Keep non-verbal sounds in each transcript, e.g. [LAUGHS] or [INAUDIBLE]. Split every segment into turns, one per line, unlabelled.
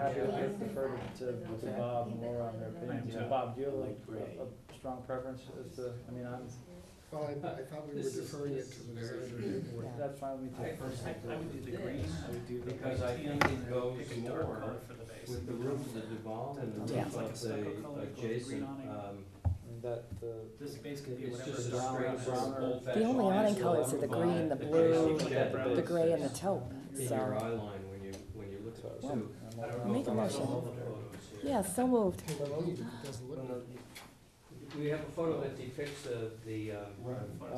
Happy to give defer to, to Bob and Laura on their opinion.
I am too.
Bob, do you have like a, a strong preference as to, uh, I mean, I'm,
Well, I, I thought we were
This is-
deferring it
this
to
is
the
very-
decision of the board.
that's fine with me
I
too.
I would do the green, I would do the.
Because I
tan,
think it
and then
goes
pick a dark
more
color for the base.
With the roof of the Duval and the
Yeah.
roof
Like a
of
stucco color,
the
gold green
adjacent,
awning.
um,
That, the,
This base could be
it's
whatever.
just a
brown- brown-
straight brown old
The only awning colors are the green, the blue, the
the
gray and the taupe,
In your
so,
eye line when you, when you look at those
Well,
two.
I'm
I
all
don't
for
know
Make
if
a
I'm
motion.
seeing all the photos here.
yeah, so moved.
Take a look if it doesn't look good.
We have a photo that depicts the, the, um,
Um,
the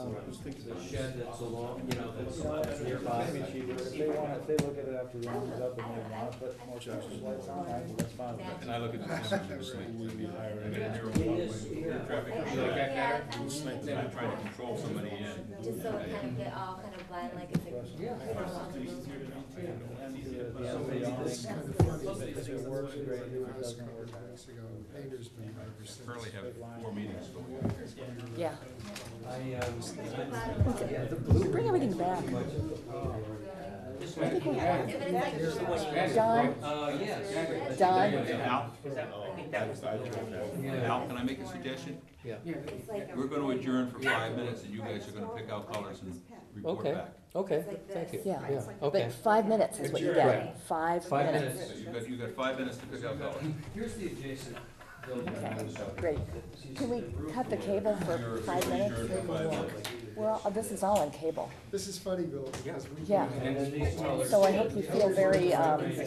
shed that's along, you know,
You know what,
that's
it's
nearby.
gonna be cheaper. If they want, if they look at it after the round is up and they want to put more structures lights on, I- that's fine. with me.
And I look at the numbers and just like, it'd be higher in a narrow one-way for traffic.
Yeah.
You like that better?
Yeah.
Instead of trying to control somebody in.
Just so it kind of get all kind of blend, like it's like.
Yeah.
And the- the
So
outside
maybe
awning,
this
It's kind of
if
funny,
it-
because
If it works, great, if
the
it
house
doesn't
covered
work.
weeks ago, painter's been ever since.
Currently have four meetings going on.
Yeah.
I, um, yeah, the blue.
Bring everything back.
uh, This
I think we have.
But it's like.
Here's the one you
That's
Don?
right. Uh, yes.
Don?
Al,
I think that was the
Al, can I make a suggestion?
Yeah.
It's like a-
We're gonna adjourn for five minutes and you guys are gonna pick out colors and report
Okay.
back.
Okay,
It's like
thank you.
this.
Yeah.
Okay.
But five minutes is what you get, five
Five
minutes.
minutes.
So you got, you got five minutes to pick out colors.
Here's the adjacent building.
Okay, great. Can we cut the cable for five minutes?
Adjourn for five minutes.
We're all, this is all on cable,
This is funny, Bill, because we.
Yeah.
And then these colors.
so I hope you feel very, um, yeah.
My wife's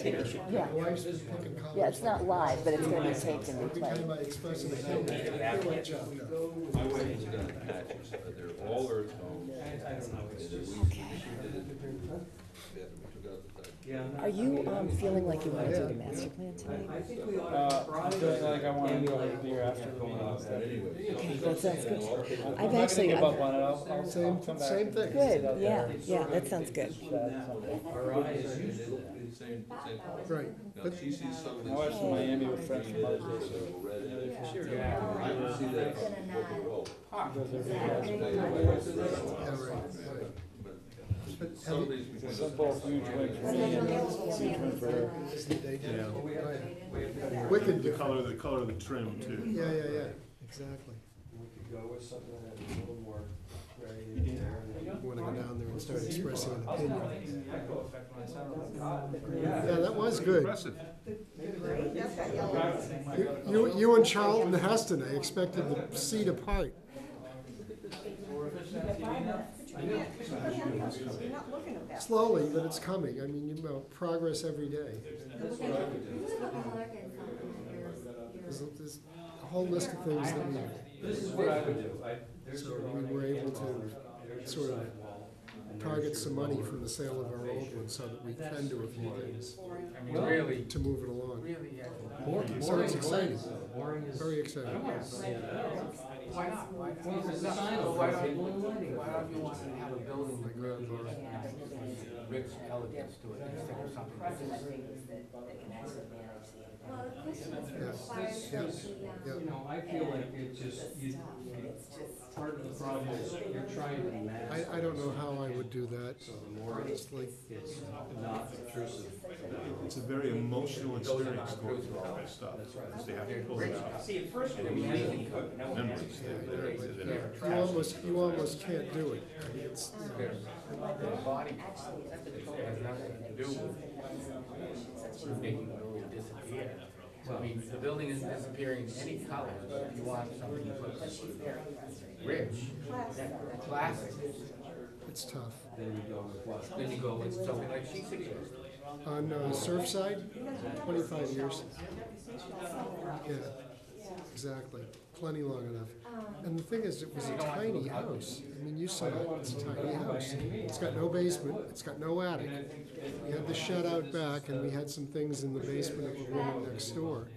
been picking colors.
Yeah, it's not live, but it's gonna be taped and
Every time
replayed.
I express it, I don't feel like
I
John.
went into the patches, uh, they're all earth tones.
Yeah.
Are you, um, feeling like you wanna do the master plan tonight?
I think we ought
Uh,
to try
it feels
to
like I wanna do
emulate
like the year after the meeting
uh,
and stuff.
Okay, that sounds good.
I'm
I've
not gonna
actually-
give
I've-
up on it. I'll- I'll- I'll
Same-
come back
same
and
thing.
sit out
Good,
there.
yeah,
It's
yeah,
sort of
that
like
sounds
it
good.
just went down. Our eyes used to look-
Same, same color.
Right,
Now, she sees something.
I was in Miami with friends from Mother's Day, so-
Yeah.
I don't see that from Boca Roll.
yeah, right, right.
But some of these-
Simple, huge wing for me and huge wing for her.
This is the day
Yeah.
down. Right.
We have to-
Wicked
The
different.
color, the color of the trim too.
Yeah, yeah, yeah, exactly.
We could go with something that was a little more gray in there. and then-
When I go down there and start expressing an
I was kinda
opinion.
thinking the echo effect when I sat on the cot.
Yeah, that was good.
Impressive.
You- You, you and Charlton Heston, I expected the seat apart. Slowly, but it's coming. I mean, you know, progress every day. There's, a- there's a whole list of things that we
This is what I would do. I- there's
So
your
we
awning,
were able to
there's your
sort of
sidewall, and there's your
target some money
lower
from the sale of our old
elevation.
ones so that we can do a few things
I mean, really.
to move it along.
Boring,
So it's
boring
exciting,
is- boring is.
very exciting.
Why not? Well, the sign of why don't you, why don't you want to have a building that really brings elegance to it instead of something that's
Well, the question is
Yes.
requires that
Yes.
the, um,
You know, I feel like it just, you, part of the problem is you're trying to mask.
I, I don't know how I would do that,
So the more it's,
honestly.
it's not obtrusive.
It's a very emotional experience going through all that stuff, because they have to pull it out.
See, at first
And we make memories that- that exist in it.
uh,
You almost, you almost can't do it. I mean, it's,
actually, it's
making the building disappear. So I mean, the building isn't disappearing in any color, but if you want something that looks rich, that classic,
it's tough.
Then you go with what?
then you go with something like She City.
On uh, Surfside, twenty-five years. Yeah, exactly. Plenty long enough.
Um,
And the thing is, it was a tiny house. I mean, you saw it, it's a tiny house. It's got no basement, it's got no attic. We had the shed out back and we had some things in the basement of the room next door.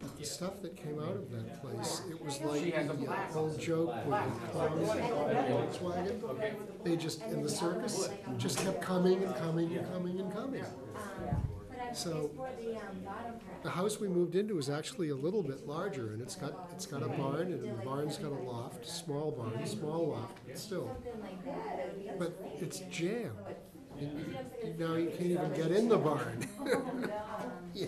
But the stuff that came out of that place, it was like the old joke with the clowns and the Volkswagen. They just, in the circus, just kept coming and coming and coming and coming.
Um, But I, it's for the,
So-
um, bottom part.
The house we moved into is actually a little bit larger, and it's got, it's got a barn, and the barn's got a loft, small barn, small loft, but still.
Something like that, that would be
But
great.
it's jammed.
You know, it's like a- [LAUGHS]
Now you can't even get in the barn.
Um,
Yeah,